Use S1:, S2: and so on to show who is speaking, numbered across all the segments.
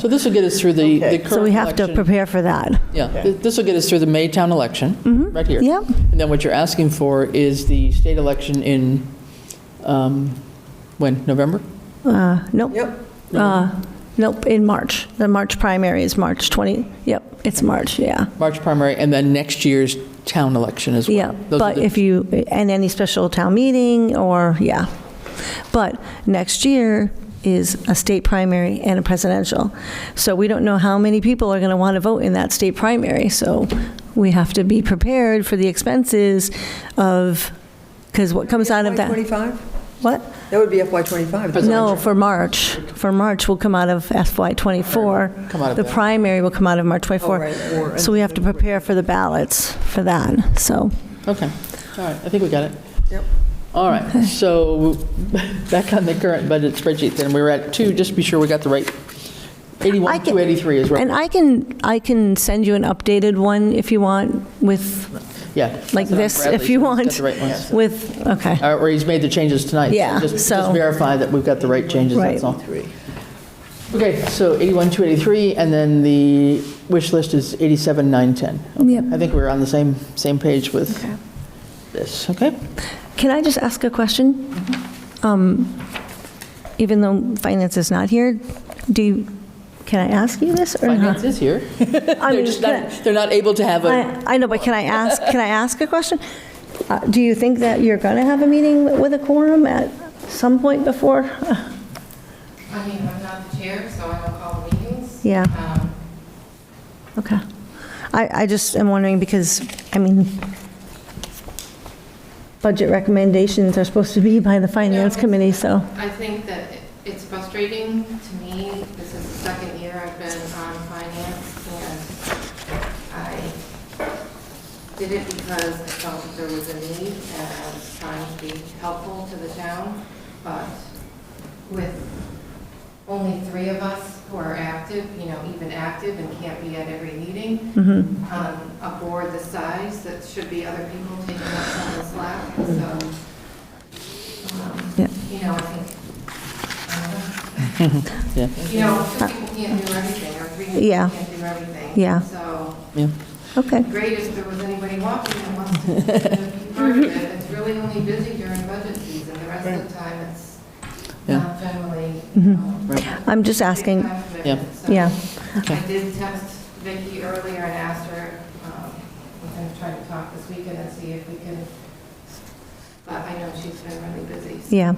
S1: So this will get us through the the
S2: Okay.
S1: current election.
S3: So we have to prepare for that.
S1: Yeah, th- this will get us through the Maytown election, right here.
S3: Mm-hmm. Yep.
S1: And then what you're asking for is the state election in, um, when, November?
S3: Uh, Nope,
S2: Yep.
S3: Uh, nope, in March. The March primary is March 20, yep, it's March, yeah.
S1: March primary, and then next year's town election as well.
S3: Yeah,
S1: Those are
S3: but
S1: the-
S3: if you, and any special town meeting or, yeah. But next year is a state primary and a presidential. So we don't know how many people are going to want to vote in that state primary. So we have to be prepared for the expenses of, because what comes out of that?
S2: FY25?
S3: What?
S2: That would be FY25.
S3: No, for March. For March will come out of FY '24.
S1: Come out of
S3: The
S1: that.
S3: primary will come out of March
S2: Oh, right,
S3: '24.
S2: or-
S3: So we have to prepare for the ballots for that, so.
S1: Okay, all right, I think we got it.
S2: Yep.
S1: All right, so back on the current budget spreadsheet, then we were at two, just be sure we got the right,
S3: I
S1: 81,
S3: can-
S1: 283 is right.
S3: And I can, I can send you an updated one if you want with,
S1: Yeah.
S3: like
S1: That's on
S3: this,
S1: Bradley,
S3: if
S1: so
S3: you
S1: he's got
S3: want,
S1: the right ones.
S3: with, okay,
S1: Uh, Or he's made the changes tonight. so
S3: Yeah,
S1: just- Just
S3: so-
S1: verify that we've got the right changes, that's
S3: Right.
S1: all. Okay, so 81, 283, and then the wish list is 87, 910.
S3: Yep.
S1: I think we're on the same, same page with
S3: Okay.
S1: this, okay?
S3: Can I just ask a question?
S1: Mm-hmm.
S3: Um, Even though finance is not here, do, you- can I ask you this or
S1: Finance
S3: not?
S1: is here.
S3: I
S1: They're
S3: mean,
S1: just
S3: can
S1: not, they're not able to have a,
S3: I I know, but can I ask, can I ask a question? Uh, Do you think that you're going to have a meeting with a quorum at some point before?
S4: I mean, I'm not the chair, so I don't call the meetings.
S3: Yeah.
S4: Um,
S3: Okay. I, I just am wondering because, I mean, budget recommendations are supposed to be by the finance
S4: Yeah.
S3: committee, so.
S4: I think that it- it's frustrating to me. This is the second year I've been on finance, and I did it because I felt that there was a need, and I was trying to be helpful to the town, but with only three of us who are active, you know, even active and can't be at every meeting, on a board the size, that should be other people taking up some of the slack, so um,
S3: Yeah.
S4: you know, I think,
S1: yeah,
S4: um, you know, some people can't do everything, or three people
S3: Yeah.
S4: can't do everything.
S3: Yeah.
S4: So,
S1: yeah.
S3: Okay,
S4: great if there was anybody walking that wants to be part of it. It's really only busy during budget season, the rest of the time, it's
S1: Yeah.
S4: not generally. um,
S1: Right.
S3: Mm-hmm. I'm just
S4: big
S3: asking-
S4: time commitment.
S1: Yeah.
S4: So,
S3: Yeah.
S4: I did text Vicki earlier and asked her, um, we're going to try to talk this weekend and see if we can, but I know she's been really busy. so-
S3: yeah.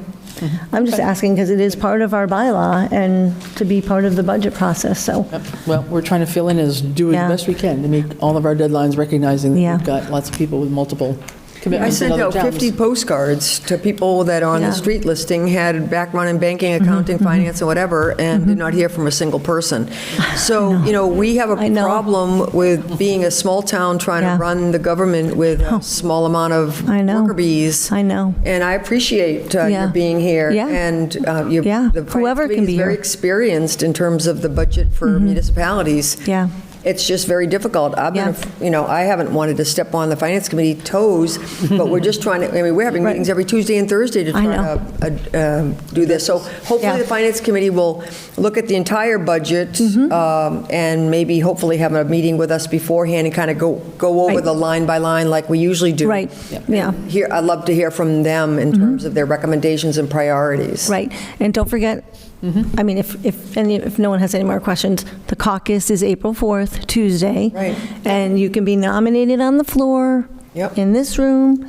S3: I'm just asking because it is part of our bylaw and to be part of the budget process, so.
S1: Yep. Well, we're trying to fill in as, do
S3: Yeah.
S1: as best we can to meet all of our deadlines, recognizing that
S3: Yeah.
S1: we've got lots of people with multiple
S2: I
S1: commitments in
S2: sent
S1: other
S2: out
S1: towns.
S2: 50 postcards to people that on
S3: Yeah. Mm-hmm,
S2: the street listing had background in banking, accounting, finance, and whatever, and did not hear from a single person. So, you know, we have a
S3: I know.
S2: problem with being a small town trying
S3: Yeah. Oh.
S2: to run the government with a small amount of
S3: I know.
S2: worker bees.
S3: I know.
S2: And I appreciate uh,
S3: Yeah.
S2: your being here.
S3: Yeah.
S2: And uh, you,
S3: Yeah.
S2: the
S3: Whoever can
S2: finance
S3: be
S2: committee is very
S3: here. Mm-hmm.
S2: experienced in terms of the budget for municipalities.
S3: Yeah.
S2: It's just very difficult. I've been,
S3: Yeah.
S2: you know, I haven't wanted to step on the finance committee toes, but we're just trying to, I mean, we're having
S3: Right.
S2: meetings every Tuesday and Thursday to
S3: I
S2: try
S3: know.
S2: to uh, um, do this. So
S3: Yeah.
S2: hopefully, the finance committee will look at the entire budget
S3: Mm-hmm.
S2: um, and maybe hopefully have a meeting with us beforehand and kind of go, go over
S3: Right.
S2: the line by line like we usually do.
S3: Right, yeah.
S2: Here, I'd love to hear from them in terms of their recommendations and priorities.
S3: Right, and don't forget,
S2: Mm-hmm.
S3: I mean, if, if, any if no one has any more questions, the caucus is April 4th, Tuesday.
S2: Right.
S3: And you can be nominated on the floor.
S2: Yep.
S3: In this room,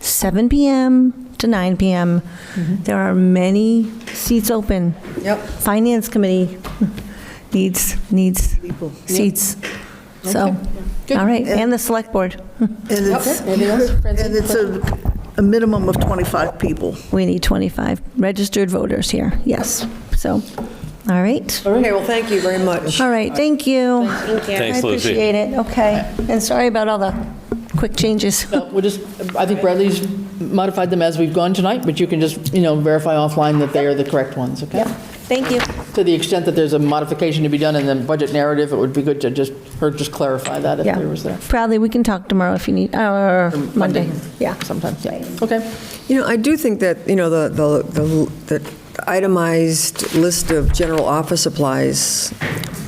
S3: 7 PM to 9 PM. There are many seats open.
S2: Mm-hmm. Yep.
S3: Finance Committee needs, needs seats. So,
S1: Good.
S3: all right, and the Select Board,
S5: And it's,
S1: Anything else, Francine?
S5: and it's a, a minimum of 25 people.
S3: we need 25 registered voters here, yes. So, all right.
S2: Okay, well, thank you very much.
S3: All right, thank you.
S6: Thanks,
S3: I
S6: Lucy.
S3: appreciate it, okay. And sorry about all the quick changes.
S1: No, We'll just, I think Bradley's modified them as we've gone tonight, but you can just, you know, verify offline that they are the correct ones, okay?
S3: Thank you.
S1: To the extent that there's a modification to be done in the budget narrative, it would be good to just, her just clarify that if
S3: Yeah.
S1: there was there
S3: Probably, we can talk tomorrow if you need, or Monday.
S1: Monday.
S3: Yeah.
S1: sometimes, yeah. Okay,
S2: You know, I do think that, you know, the, the- the, the itemized list of general office supplies